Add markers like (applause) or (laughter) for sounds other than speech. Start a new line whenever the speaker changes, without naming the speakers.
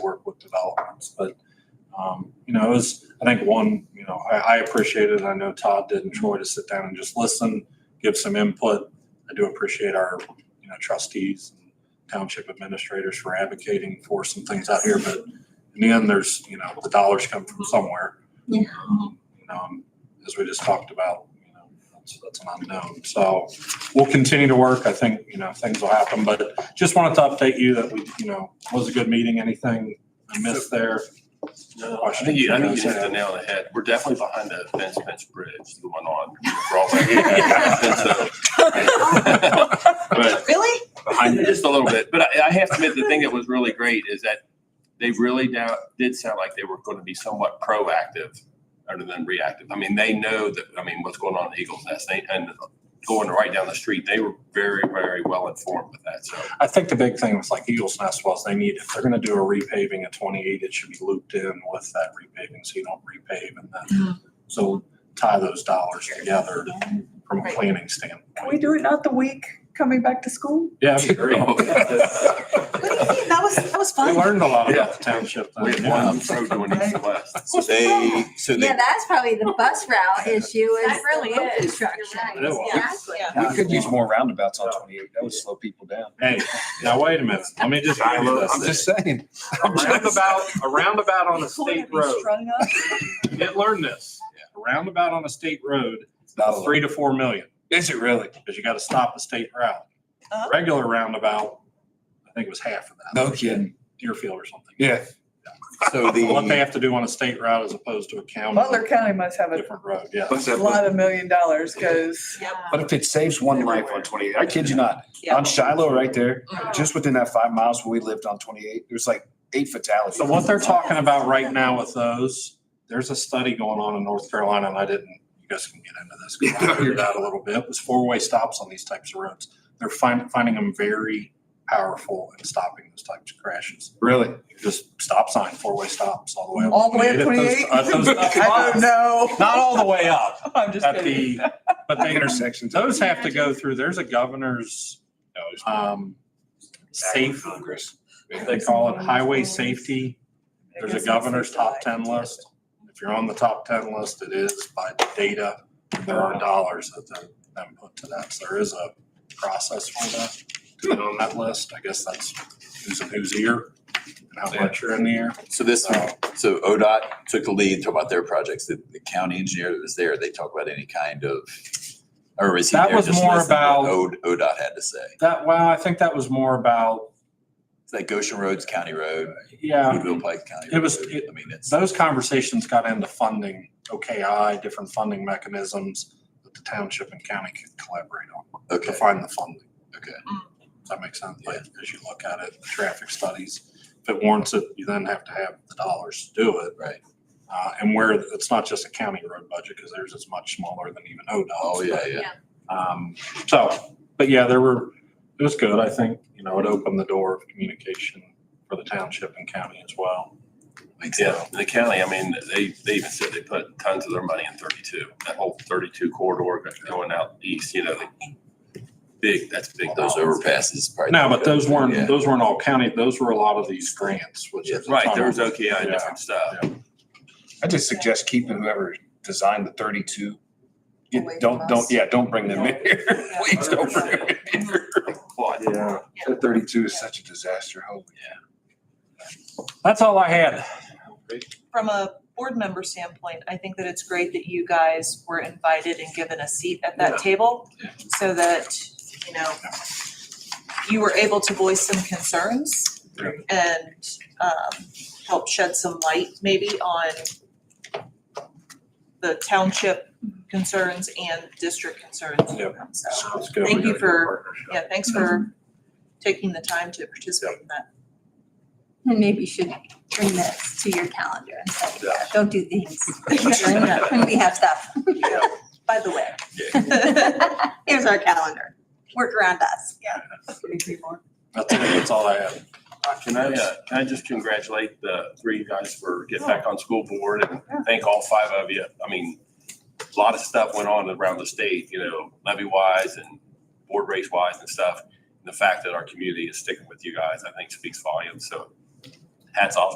work with developments, but, um, you know, it was, I think one, you know, I, I appreciate it. I know Todd did and Troy to sit down and just listen, give some input. I do appreciate our, you know, trustees and township administrators for advocating for some things out here, but in the end, there's, you know, the dollars come from somewhere.
Yeah.
Um, You know, and as we just talked about, you know, that's, that's an unknown. So we'll continue to work. I think, you know, things will happen, but just wanted to update you that we, you know, was a good meeting. Anything I missed
(laughs)
there?
No, I think you, I think you hit the nail on the head. We're definitely behind the fence fence bridge going on. We're all like, yeah, and so- But
Really?
behind it just a little bit. But I, I have to admit, the thing that was really great is that they really now did sound like they were going to be somewhat proactive rather than reactive. I mean, they know that, I mean, what's going on in Eagles Nest they, and going right down the street, they were very, very well informed with that. So
I think the big thing was like Eagles Nest was they need, if they're gonna do a repaving at twenty-eight, it should be looped in with that repaving, so you don't repave and then, so tie those dollars together from a
Right.
planning standpoint.
Can we do it not the week coming back to school?
Yeah, that'd be great.
Oh,
What do
(laughs)
you mean? That
(laughs)
was, that was
We
fun.
learned a lot
Yeah.
about the township.
we
then,
had
yeah.
one road going east and west.
So they, so they,
Yeah, that's probably the bus route issue is
That really
the road
is. You're
construction.
right.
It was.
Exactly.
we could use more roundabouts on twenty-eight. That would slow people down.
Hey, now wait a minute, let me just. give you this.
I'm just saying.
A roundabout, a roundabout on a state road,
Strung up.
you didn't learn this, a roundabout on a state road,
It's not a
Oh.
lot.
three to four million.
Is it really?
because you got to stop a state route.
Uh-huh.
Regular roundabout, I think it was half of that.
No kidding.
Deerfield or something.
Yeah.
(laughs)
So
What they
the,
have to do on a state route as opposed to a county.
(laughs) Butler County must have a
Different road, yeah.
lot of million dollars because
but if it saves one life on twenty-eight, I kid you not, on Shiloh right there,
Mm-hmm.
just within that five miles where we lived on twenty-eight, there's like eight fatalities.
So what they're talking about right now with those, there's a study going on in North Carolina and I didn't, you guys can get into this. 'cause I figured it out a little bit, was four-way stops on these types of roads. They're finding, finding them very powerful in stopping those types of crashes.
Really?
Just stop sign, four-way stops all the way up.
all the way to
At those-
twenty-eight.
at those-
(laughs)
uh,
I don't know.
Not all the way up,
(laughs) I'm just
at
kidding.
the, but they,
Intersections.
those have to go through, there's a governor's, um, safe, they call it highway safety. There's a governor's top ten list. If you're on the top ten list, it is by data, there are dollars that they then put to that. So there is a process for that. To get on that list, I guess that's who's in whose ear and how much you're in the ear.
So this,
So
so ODOT took the lead, talk about their projects, the, the county engineer that was there, they talk about any kind of, or is he
That
there
was
just
more
listening to
about-
what O- ODOT had to say?
that, wow, I think that was more about,
It's like Goshen Roads County Road,
yeah.
Woodville Pike County.
It was-
Road.
it-
I mean, it's,
those conversations got into funding, OKI, different funding mechanisms that the township and county could collaborate on to
okay,
find the funding.
okay.
Does that make sense? Like, as you look at it, the traffic studies, if it warrants it, you then have to have the dollars to do it.
Right.
Uh, and where, it's not just a county road budget, because theirs is much smaller than even ODOT.
Oh, yeah, yeah.
Um, so, but yeah, there were, it was good. I think, you know, it opened the door of communication for the township and county as well.
Makes sense.
Yeah, the county, I mean, they, they even said they put tons of their money in thirty-two, that whole thirty-two corridor going out east, you know, like, big, that's big.
Those overpasses probably.
No, but those
Yeah.
weren't, those weren't all county. Those were a lot of these grants, which is.
Right, there was OKI and different stuff.
I just suggest keeping whoever designed the thirty-two. You
Away
Don't,
from
don't,
us.
yeah, don't bring them in here. Please don't bring them in here.
Well, I-
Yeah.
That thirty-two is such a disaster, holy.
That's all I had.
from a board member standpoint, I think that it's great that you guys were invited and given a seat at that table so that, you know, you were able to voice some concerns
Yeah.
and um help shed some light maybe on the township concerns and district concerns.
Yep.
So,
Sounds good. We
Thank you
got a good
for-
partnership.
yeah, thanks for taking the time to participate in that.
And maybe you should bring this to your calendar and say,
Yeah.
don't do
(laughs)
these during the- when we have stuff.
By the way.
(laughs) Here's our calendar. Work around us.
That's, it. that's all I have.
Can I, uh, can I just congratulate the three guys for getting back on school board and thank all five of you? I mean, a lot of stuff went on around the state, you know, levy wise and board race wise and stuff. And The fact that our community is sticking with you guys, I think speaks volumes. So hats off